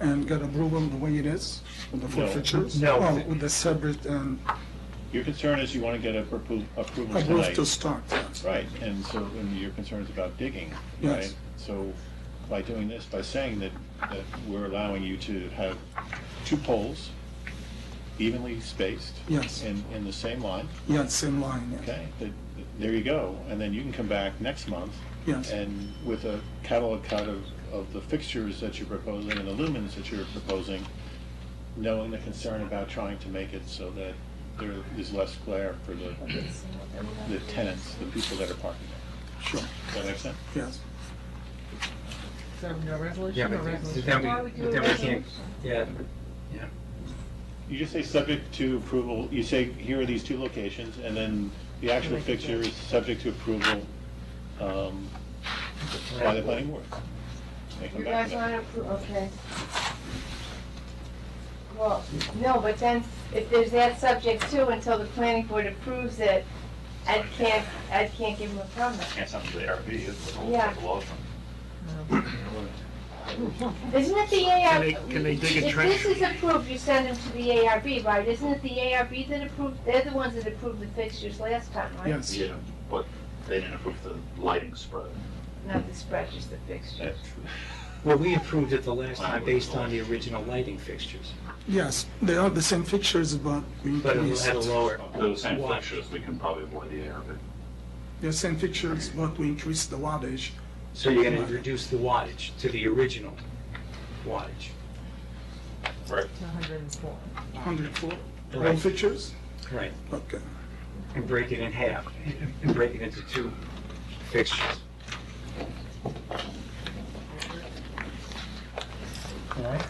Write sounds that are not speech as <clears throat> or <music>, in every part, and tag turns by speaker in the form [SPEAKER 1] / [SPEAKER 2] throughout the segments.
[SPEAKER 1] and get approval the way it is with the
[SPEAKER 2] No.
[SPEAKER 1] forfeitures?
[SPEAKER 2] No.
[SPEAKER 1] Well, with the separate um, and
[SPEAKER 2] Your concern is you want to get a appro- approval
[SPEAKER 1] approved to
[SPEAKER 2] tonight.
[SPEAKER 1] start, yes.
[SPEAKER 2] Right, and so, and your concern is about digging,
[SPEAKER 1] Yes.
[SPEAKER 2] right? So by doing this, by saying that, that we're allowing you to have two poles evenly spaced.
[SPEAKER 1] Yes.
[SPEAKER 2] In, in the same line,
[SPEAKER 1] Yeah, same line, yeah.
[SPEAKER 2] okay? That- There you go, and then you can come back next month.
[SPEAKER 1] Yes.
[SPEAKER 2] And with a catalog cut of, of the fixtures that you're proposing and the lumens that you're proposing, knowing the concern about trying to make it so that there is less glare for the, the tenants, the people that are parking there.
[SPEAKER 1] sure,
[SPEAKER 2] Does that make sense?
[SPEAKER 1] yes.
[SPEAKER 3] Is that a resolution
[SPEAKER 4] Yeah,
[SPEAKER 3] or
[SPEAKER 4] but then- but
[SPEAKER 3] resolution?
[SPEAKER 4] then we, but then we can't, yeah, yeah.
[SPEAKER 2] You just say subject to approval, you say, here are these two locations, and then the actual fixture is subject to approval um, by the planning board. They come
[SPEAKER 5] You
[SPEAKER 2] back
[SPEAKER 5] guys
[SPEAKER 2] to that.
[SPEAKER 5] wanna approve, okay. Well, no, but then, if there's that subject too, until the planning board approves it, I can't, I can't give them a permit.
[SPEAKER 6] Can't send them to the ARB, it's a little,
[SPEAKER 5] Yeah.
[SPEAKER 6] it's a law firm.
[SPEAKER 5] Isn't it the ARB?
[SPEAKER 3] they- can they dig a
[SPEAKER 5] If
[SPEAKER 3] trench?
[SPEAKER 5] this is approved, you send them to the ARB, right? Isn't it the ARB that approved, they're the ones that approved the fixtures last time, right?
[SPEAKER 1] Yes.
[SPEAKER 6] Yeah, but they didn't approve the lighting spread.
[SPEAKER 5] Not the spread, just the fixtures.
[SPEAKER 4] Well, we approved it the last time based on the original lighting fixtures,
[SPEAKER 1] Yes, they are the same fixtures, but we
[SPEAKER 4] but it
[SPEAKER 1] increased.
[SPEAKER 4] had a lower.
[SPEAKER 6] Those same
[SPEAKER 4] wattage.
[SPEAKER 6] fixtures, we can probably avoid the ARB.
[SPEAKER 1] The same fixtures, but we increased the wattage.
[SPEAKER 4] So you're gonna reduce the wattage to the original wattage.
[SPEAKER 6] Right.
[SPEAKER 3] To 104.
[SPEAKER 1] 104, all
[SPEAKER 4] Right.
[SPEAKER 1] fixtures?
[SPEAKER 4] Right.
[SPEAKER 1] Okay,
[SPEAKER 4] And break it in half, and break it into two fixtures. All right?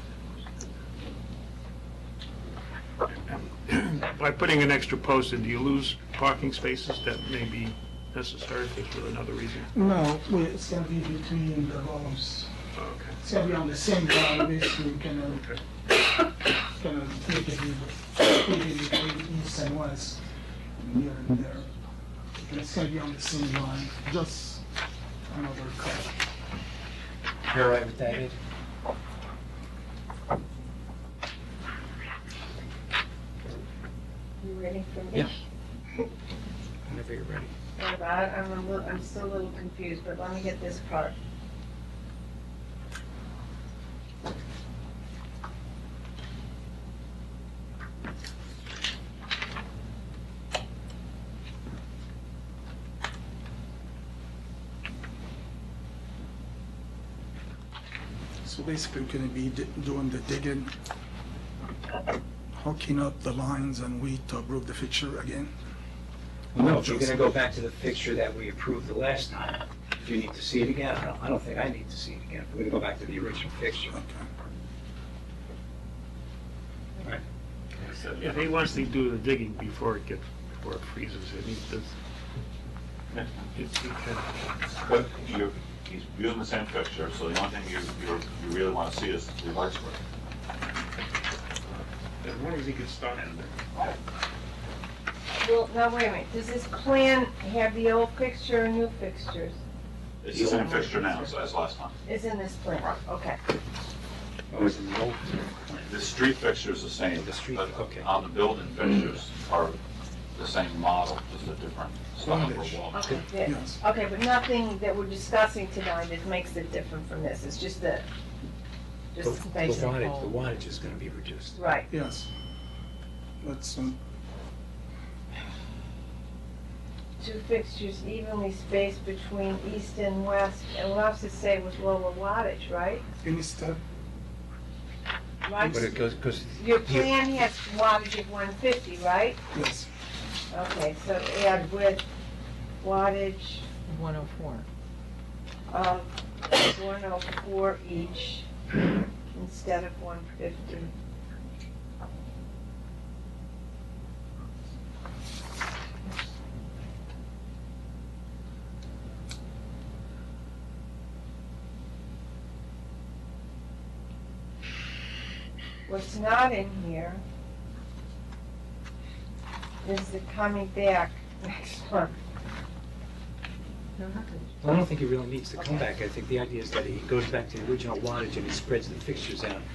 [SPEAKER 7] <clears throat> By putting an extra post in, do you lose parking spaces that may be necessary if it's for another reason?
[SPEAKER 1] now, we- it's gonna be between the homes,
[SPEAKER 7] Oh, Okay.
[SPEAKER 1] it's gonna be on the same line, basically, kind of, kind of uh, take it, in- take it between east and west, and here and there. And It's gonna be on the same line, just another cut.
[SPEAKER 4] You're all right with that, Ed?
[SPEAKER 5] You ready for me?
[SPEAKER 4] Yeah. Whenever you're ready.
[SPEAKER 5] Hold on, I'm a little, I'm still a little confused, but let me get this part.
[SPEAKER 1] So basically, we're gonna be di- doing the digging, hooking up the lines and we to approve the fixture again.
[SPEAKER 4] No, if you're gonna go back to the picture that we approved the last time, do you need to see it again? I don't, I don't think I need to see it again. We're gonna go back to the original picture.
[SPEAKER 1] Okay.
[SPEAKER 7] If he wants to do the digging before it gets, before it freezes, and he does. It- he can-
[SPEAKER 6] But you're, he's using the same fixture, so the only thing you, you're- you really want to see is the light spread.
[SPEAKER 7] As long as he can start in there.
[SPEAKER 5] Well, now wait a minute, does this plan have the old fixture and new fixtures?
[SPEAKER 6] It's the same fixture now as, as last time.
[SPEAKER 5] It's in this plan, okay.
[SPEAKER 4] Oh, it's in the old.
[SPEAKER 6] The street fixture is the same.
[SPEAKER 4] The street,
[SPEAKER 6] but
[SPEAKER 4] okay.
[SPEAKER 6] On the building fixtures are the same model, just a different style
[SPEAKER 1] Wattage.
[SPEAKER 6] for wall.
[SPEAKER 5] Okay, yeah.
[SPEAKER 1] Yes.
[SPEAKER 5] okay, but nothing that we're discussing tonight that makes it different from this, it's just the,
[SPEAKER 4] The
[SPEAKER 5] just
[SPEAKER 4] the
[SPEAKER 5] the basic.
[SPEAKER 4] wattage, the wattage is gonna be reduced.
[SPEAKER 5] Right,
[SPEAKER 1] Yes. That's, um,
[SPEAKER 5] two fixtures evenly spaced between east and west, and what I was to say was lower wattage, right?
[SPEAKER 1] any step,
[SPEAKER 5] Right,
[SPEAKER 4] But it goes, goes.
[SPEAKER 5] your
[SPEAKER 4] you-
[SPEAKER 5] plan has wattage of one fifty, right?
[SPEAKER 1] yes,
[SPEAKER 5] Okay, so add with wattage
[SPEAKER 3] 104.
[SPEAKER 5] of one oh four each instead of one fifty. What's not in here is the coming back <laughs> next month.
[SPEAKER 3] No, how could-
[SPEAKER 4] I don't think he really needs to come back. I think the idea is that he goes back to the original wattage and he spreads the fixtures out